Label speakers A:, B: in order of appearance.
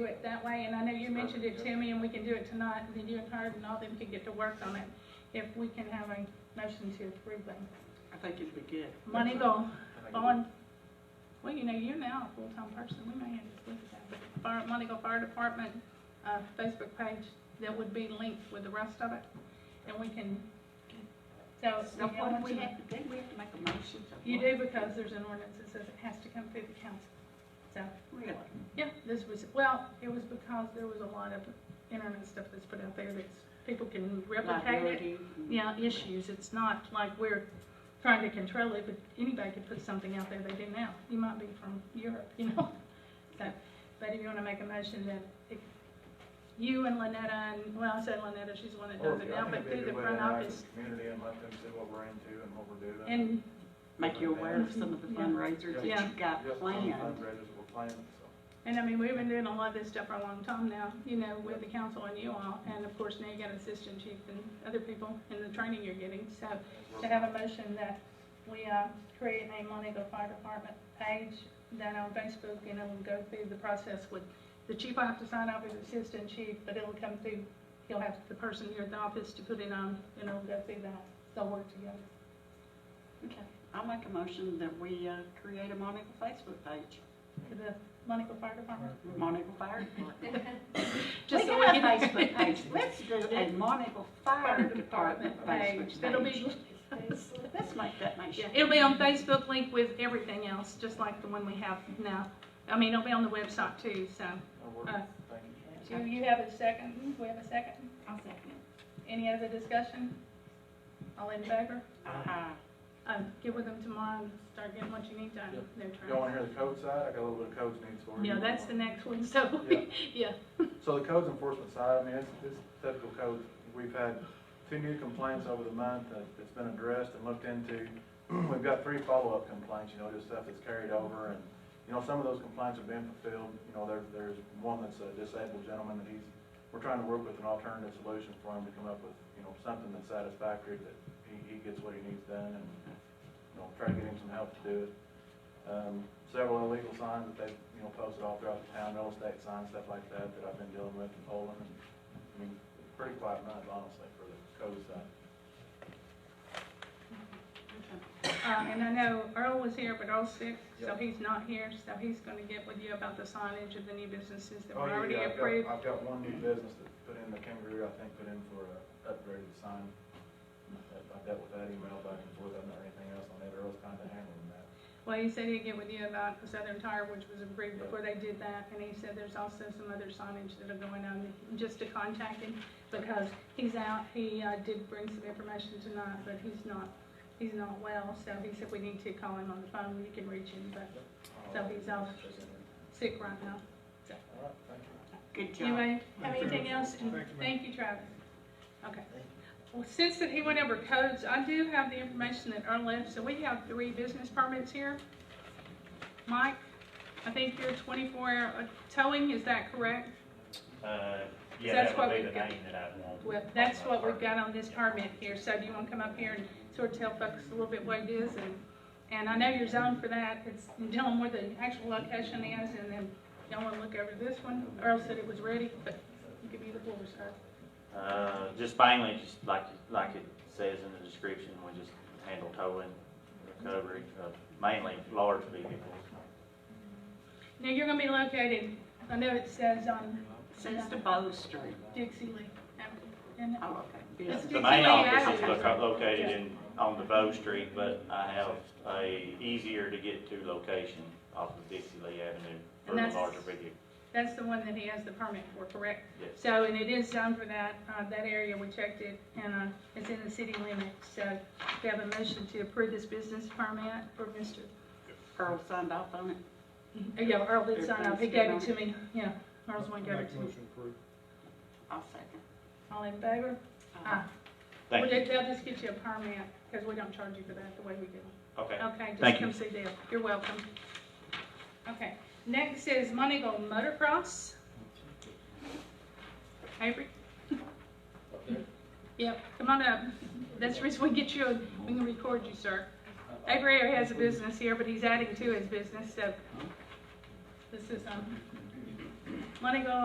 A: do it that way, and I know you mentioned it to me, and we can do it tonight, and then you and Herb and all them can get to work on it, if we can have a motion to approve them.
B: I think it'd be good.
A: Money go,
C: I think
A: bond, well, you know, you're now a full-time person, we may have to look at that, but Fire, Money Go Fire Department, uh, Facebook page, that would be linked with the rest of it, and we can, so.
B: Now,
A: yeah,
B: what do we
A: you-
B: have to do? We have to make a motion to.
A: You do because there's an ordinance that says it has to come through the council, so.
B: Really?
A: Yeah, this was, well, it was because there was a lot of internet stuff that's put out there that's, people can replicate it.
B: Liability?
A: Yeah, issues, it's not like we're trying to control it, but anybody could put something out there they do now. You might be from Europe, you know? So, but if you wanna make a motion that if you and Lynetta, and, well, I said Lynetta, she's the one that
C: Or,
A: does it
C: I
A: now,
C: think
A: but
C: it'd be
A: through the
C: a good way
A: front
C: to interact with
A: office.
C: the Community and let them see what we're into and what we're doing.
A: And,
B: Make you aware of some of the
A: Yeah.
B: fundraisers that
A: Yeah.
B: you've got
C: Just on
B: planned.
C: fundraisers we're planning, so.
A: and I mean, we've been doing a lot of this stuff for a long time now, you know, with the council and you all. And of course, now you got assistant chief and other people and the training you're getting, so.
C: we're-
A: To have a motion that we uh, create a Montego Fire Department page that on Facebook, and it'll go through the process with, the chief will have to sign off as assistant chief, but it'll come through, he'll have the person here at the office to put it on, and it'll go through that, they'll work together.
B: Okay, I'll make a motion that we uh, create a Monica Facebook page,
A: For the Montego Fire Department.
B: Monica Fire Department.
A: Just so
B: We got a
A: can-
B: Facebook page, let's do a Monica Fire Department Facebook
A: It'll
B: page.
A: be,
B: Let's make that
A: yeah,
B: motion.
A: it'll be on Facebook link with everything else, just like the one we have now. I mean, it'll be on the website too, so.
C: and we're-
A: Uh,
C: thank you.
A: Do you have a second? We have a second?
B: I'll second.
A: Any other discussion? All in favor?
B: Uh,
A: Um, get with them tomorrow and start getting what you need done.
C: Yeah.
A: They're
C: Y'all wanna
A: trying.
C: hear the code side? I got a little bit of codes needs for you.
A: Yeah, that's the next one, so,
C: Yeah.
A: yeah.
C: So the codes enforcement side, I mean, it's, it's typical code. We've had two new complaints over the month that, that's been addressed and looked into. We've got three follow-up complaints, you know, just stuff that's carried over and, you know, some of those complaints have been fulfilled. You know, there, there's one that's a disabled gentleman that he's, we're trying to work with an alternative solution for him to come up with, you know, something that's satisfactory that he, he gets what he needs done and, you know, try to get him some help to do it. Um, several illegal signs that they've, you know, posted all throughout the town, real estate signs, stuff like that, that I've been dealing with in Poland. and, I mean, pretty quiet month, honestly, for the code side.
A: Uh, and I know Earl was here, but Earl's sick, so
C: Yeah.
A: he's not here, so he's gonna get with you about the signage of the new businesses that
C: Oh,
A: were
C: yeah,
A: already
C: yeah, I've got-
A: approved.
C: I've got one new business that put in, the Kangaroo, I think, put in for a upgraded sign. I- I dealt with that email back and forth, I'm not anything else on that, Earl's kinda handling that.
A: Well, he said he'd get with you about the Southern Tire, which was approved before they did that, and he said there's also some other signage that are going on, just to contact him, because he's out, he, uh, did bring some information tonight, but he's not, he's not well, so he said we need to call him on the phone, you can reach him, but So he's off. sick right now.
C: All right, thank you.
B: Good job.
A: Anyway, have
C: Thank you.
A: anything else? And
C: Thank you, ma'am.
A: Thank you, Travis. Okay. Well, since that he went over codes, I do have the information that Earl left, so we have three business permits here. Mike, I think you're twenty-four hour towing, is that correct?
D: Uh,
A: That's
D: yeah, that
A: what
D: would be
A: we've
D: the
A: got.
D: name that I'd want.
A: Well, that's what we've got on this permit here, so do you wanna come up here and sort of tell folks a little bit what it is and, and I know you're zoned for that, it's, tell them where the actual location is and then y'all wanna look over this one? Earl said it was ready, but you give me the floor, sir.
D: Uh, just mainly, just like, like it says in the description, we just handle towing, recovery, of mainly large vehicles.
A: Now, you're gonna be located, I know it says on
B: Since the Bow Street.
A: Dixie Lee Avenue, isn't it?
B: Oh, okay.
A: Let's do-
D: The main
A: Dixie Lane
D: office is
A: Avenue.
D: loca- located in, on the Bow Street, but I have a easier to get to location off of Dixie Lee Avenue for
A: And that's-
D: the larger vehicle.
A: That's the one that he has the permit for, correct?
D: Yes.
A: So, and it is zoned for that, uh, that area, we checked it, and, uh, it's in the city limits, so we have a motion to approve this business permit for Mr.
B: Earl signed off on it.
A: Uh, Yeah, Earl did sign up, he gave it to me, yeah, Earl's one gave it to me.
B: I'll second.
A: All in favor? Aye. Well,
D: Thank
A: they-
D: you.
A: They'll just get you a permit, because we don't charge you for that the way we do.
D: Okay.
A: Okay, just
D: Thank
A: come
D: you.
A: see Dale. You're welcome. Okay, next is Montego Motocross. Avery? Yep, come on up. That's the reason we get you, we can record you, sir. Avery has a business here, but he's adding to his business, so this is, um, Monica